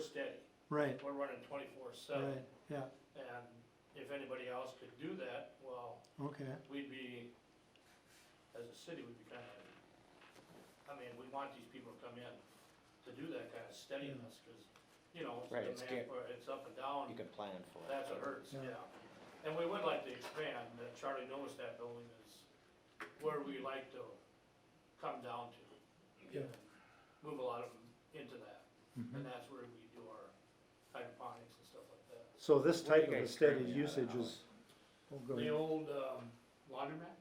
steady. right, We're running twenty-four right, seven. yeah, And if anybody else could do that, well, okay, we'd be, as a city, we'd be kind of, I mean, we want these people to come in to do that kind of steadiness, because, you know, Right, it's it's demand for, it's up and down. You can plan for it. That's what hurts, Yeah. yeah. And we would like to expand, uh, Charlie knows that building is where we like to come down to. Yeah. and Mm-hmm. Move a lot of them into that, and that's where we do our hydroponics and stuff like that. so this What do you type of a guys steady currently have usage out? is. oh, go The ahead. old, um, laundromat,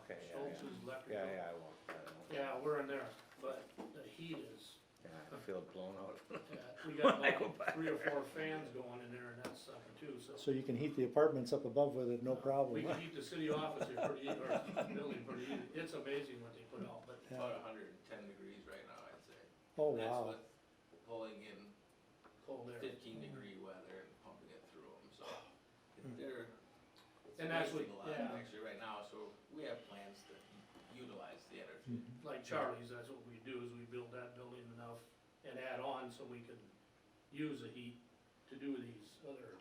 Okay, yeah, Schultz's electric. yeah, yeah, yeah, I walked that out. Yeah, we're in there, but the heat is, Yeah, I feel blown out. uh, we got When I go about back three or four fans going in there and that sucker too, so. So you can heat the apartments up above with it, Uh, no We problem, can heat the city office here pretty, easy, or building pretty, easy. it's amazing what they put out, but Yeah. About hundred and ten degrees right now, I'd say. oh And That's wow, with pulling in cold air. fifteen degree weather and pumping it through them, so Hmm. they're. it's And that's what- wasting a yeah. lot Actually, right now, so we have plans to utilize the Mhm. energy. like Charlie's, that's what we do, is we build that building enough and add on so we can use the heat to do these other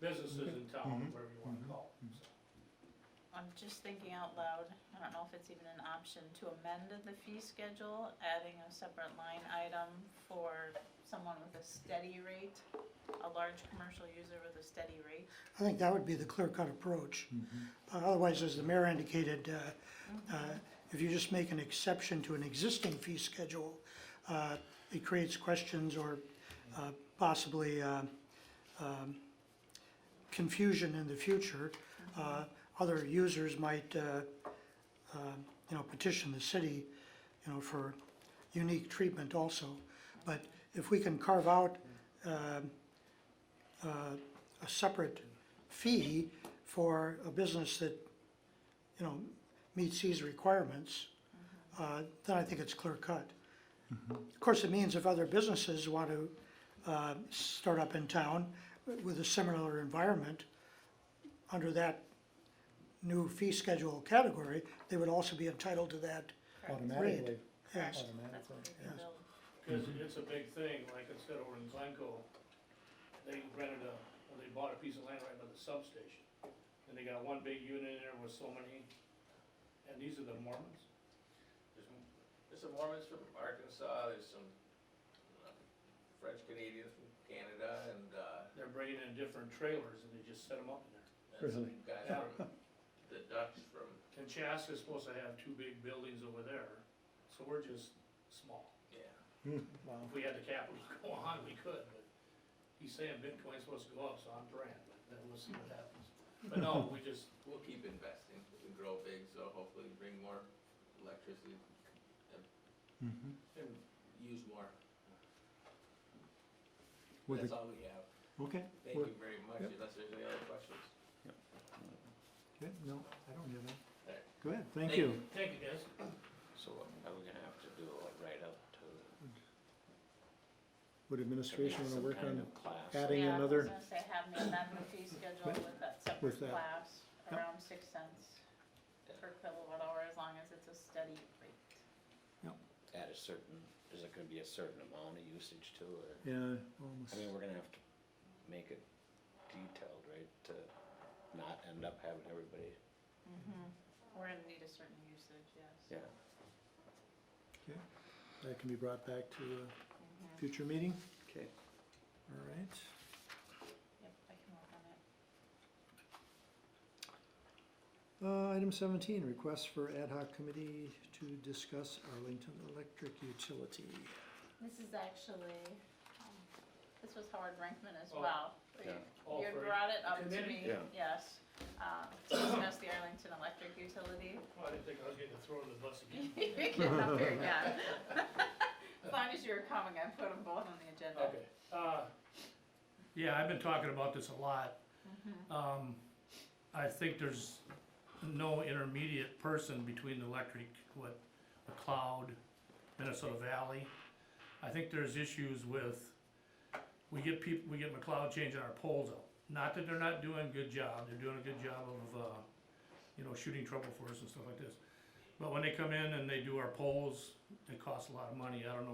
businesses in town, Mhm. whatever you wanna call them, so. Mm-hmm. I'm just thinking out loud, I don't know if it's even an option to amend the fee schedule, adding a separate line item for someone with a steady rate, a large commercial user with a steady rate. I think that would be the clear-cut approach. Uh, Otherwise, as the mayor indicated, uh, uh, if you just make an exception to an existing fee schedule, uh, it creates questions or uh, possibly uh, um, confusion in the future. Uh, Other users might, uh, uh, you know, petition the city, you know, for unique treatment also. But if we can carve out um, uh, a separate fee for a business that, you know, meets these requirements, uh, then I think it's clear cut. Of course, it means if other businesses want to uh, start up in town with a similar environment, under that new fee schedule category, they would also be entitled to that. automatically, Yes, That's automatically, what we yes. can build. Cause it's a big thing, like I said over in Glencoe, they rented a, or they bought a piece of land right by the substation. And they got one big unit in there with so many, and these are the Mormons, There's, there's some Mormons from Arkansas, there's some uh, French Canadians from Canada, and, uh, they're bringing in different trailers and they just set them up in there. and some Really? guys Yeah. from, the Dutch from, And Chaska's supposed to have two big buildings over there, so we're just small. yeah. wow. If we had the capital to go on, we could, but he's saying Bitcoin's supposed to go up, so I'm brand, but then we'll see what happens. But no, we just, We'll keep investing, we can grow big, so hopefully bring more electricity, Mhm. and use more. With That's all we have. the- Okay, Thank Well, you very much, yep. unless there's any other questions. good, no, I don't have All that. right. Good, thank Thank you. thank you guys. So what- are we gonna have to do a write-up to? Would administration wanna some work kind on of class? adding Yeah, I was another, gonna say, have me amend the fee schedule with that With separate that. class, Yep. around six cents per kilowatt hour, as long as it's a steady rate. At a certain, is it gonna be a certain amount of usage too, or? yeah, almost, I mean, we're gonna have to make it detailed, right, to not end up having everybody, Mhm. Mm-hmm. We're gonna need a certain usage, yes. yeah. that can be brought back to Mhm. a future meeting, Okay. all right. Yep, I can work on it. Uh, item seventeen, request for ad hoc committee to discuss Arlington Electric Utility. This is actually, um, this was Howard Brinkman as Oh, well. yeah. All You had for- brought it up to Committee? me, Yeah. yes, um, to discuss the Arlington Electric Utility. Well, I didn't think I was getting thrown in the bus again. You're getting up here again. As long as you were coming, I put them both on the agenda. Okay, uh, yeah, I've been talking about this a lot. Um, I think there's no intermediate person between the electric, what, McLeod, Minnesota Valley. I think there's issues with, we get people, we get McLeod changing our poles out. Not that they're not doing a good job, they're doing a good job of, uh, you know, shooting trouble for us and stuff like this. But when they come in and they do our poles, it costs a lot of money, I don't know